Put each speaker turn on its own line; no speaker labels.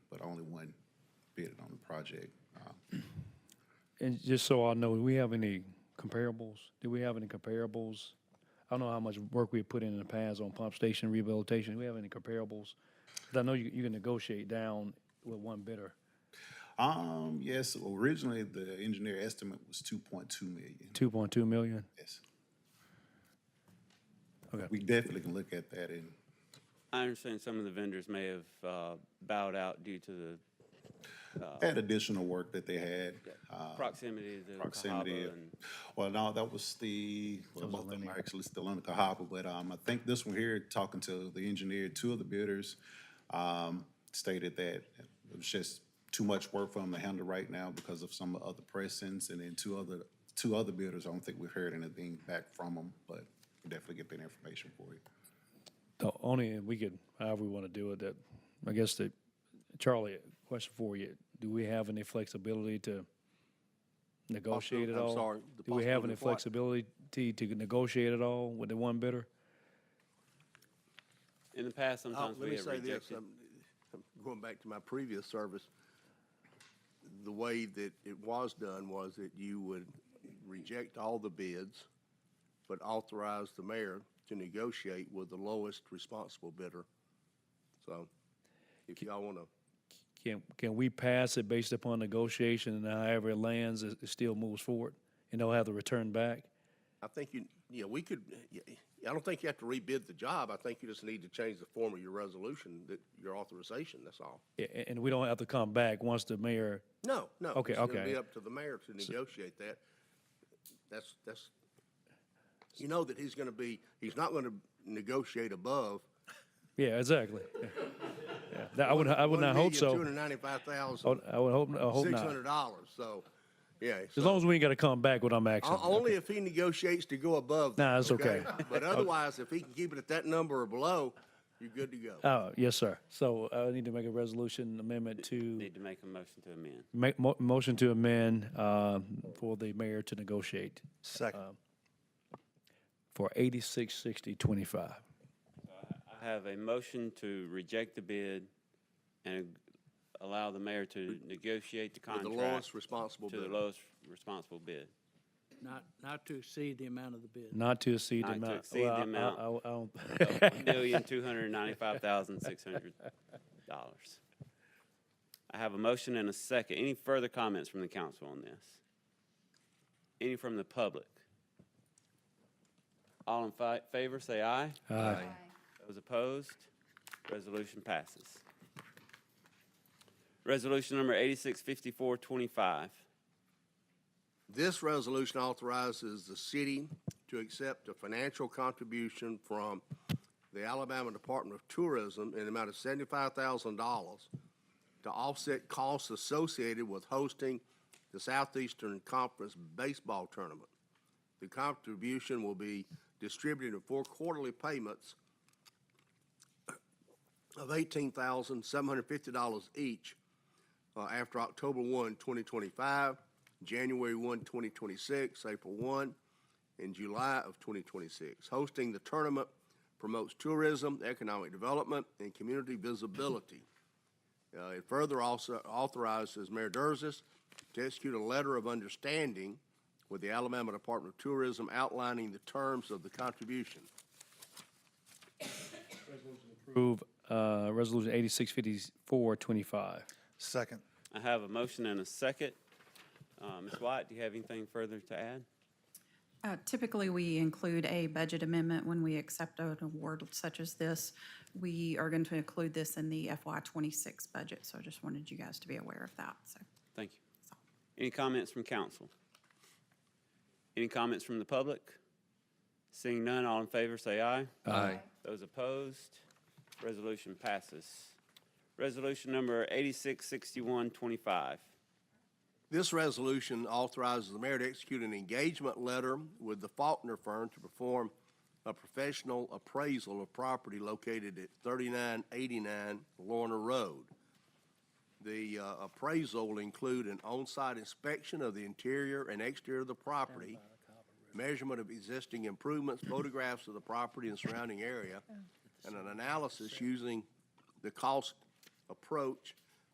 bidded on the project. Uh,
And just so I know, do we have any comparables? Do we have any comparables? I don't know how much work we put in in the past on pump station rehabilitation. Do we have any comparables? 'Cause I know you, you can negotiate down with one bidder,
Um, yes, originally the engineer estimate was two point two million.
two point two million.
Yes.
Okay.
We definitely can look at that and,
I understand some of the vendors may have uh, bowed out due to the
add additional work that they had. uh,
proximity to
proximity.
Cahaba
of-
and
Well, no, that was the, well, both of them are actually still under Cahaba, but, um, I think this one here, talking to the engineer, two of the bidders, um, stated that it was just too much work for them to handle right now because of some other pressings, and then two other, two other bidders, I don't think we've heard anything back from them, but we'll definitely get that information for you.
The only, we could, however we want to do it, that, I guess that, Charlie, question for you. Do we have any flexibility to negotiate at
I'm
all?
sorry, the
Do we have
possibility
any
of what?
flexibility to negotiate at all with the one bidder?
in the past,
Uh,
sometimes
Let
we
me
have
say this,
rejected.
um, I'm going back to my previous service, the way that it was done was that you would reject all the bids, but authorize the mayor to negotiate with the lowest responsible bidder. So if y'all want to,
Can, can we pass it based upon negotiation and however it lands, it, it still moves forward and they'll have to return back?
I think you, yeah, we could, yeah, I don't think you have to rebid the job. I think you just need to change the form of your resolution, that, your authorization, that's all.
A- a- And we don't have to come back once the mayor,
No, no.
Okay,
It's gonna
okay.
be up to the mayor to negotiate that. That's, that's, you know that he's gonna be, he's not gonna negotiate above.
yeah, exactly. Yeah. Yeah, That, I would, I would not hope
Two
so.
hundred ninety-five
I
thousand,
would- I would hope, I hope
six
not.
hundred dollars, so, yeah.
As
so-
long as we ain't gotta come back with our maximum.
o- Only if he negotiates to go above.
Nah,
that,
it's okay.
But otherwise, if he can keep it at that number or below, you're good to go.
Uh, yes, sir. So uh, I need to make a resolution amendment to
Need to make a motion to amend.
make mo- motion to amend, uh, for the mayor to negotiate um,
Second.
for eighty-six sixty twenty-five.
I have a motion to reject the bid and allow the mayor to negotiate the
With the
contract.
lowest responsible
To the
bidder.
lowest responsible bid.
Not, not to exceed the amount of the bid.
Not to exceed the
Not to
amount.
exceed the
well, I- I-
amount.
I- I don't-
One million two hundred ninety-five thousand six hundred dollars. I have a motion and a second. Any further comments from the council on this? Any from the public? All in fi- favor, say aye.
Aye.
Those opposed, resolution passes. Resolution number eighty-six fifty-four twenty-five.
This resolution authorizes the city to accept a financial contribution from the Alabama Department of Tourism in the amount of seventy-five thousand dollars to offset costs associated with hosting the Southeastern Conference Baseball Tournament. The contribution will be distributed in four quarterly payments of eighteen thousand, seven hundred and fifty dollars each, uh, after October 1, 2025, January 1, 2026, April 1, and July of 2026. Hosting the tournament promotes tourism, economic development, and community visibility. Uh, It further also authorizes Mayor Durzis to execute a letter of understanding with the Alabama Department of Tourism outlining the terms of the contribution.
Approve, uh, resolution eighty-six fifty-four twenty-five.
Second.
I have a motion and a second. Uh, Ms. White, do you have anything further to add?
Uh, Typically, we include a budget amendment when we accept an award such as this. We are going to include this in the FY twenty-six budget, so I just wanted you guys to be aware of that, so.
Thank you. Any comments from council? Any comments from the public? Seeing none, all in favor, say aye. Aye. Those opposed, resolution passes. Resolution number eighty-six sixty-one twenty-five.
This resolution authorizes the mayor to execute an engagement letter with the Faulkner firm to perform a professional appraisal of property located at 3989 Lorna Road. The uh, appraisal will include an on-site inspection of the interior and exterior of the property, measurement of existing improvements, photographs of the property and surrounding area, and an analysis using the cost approach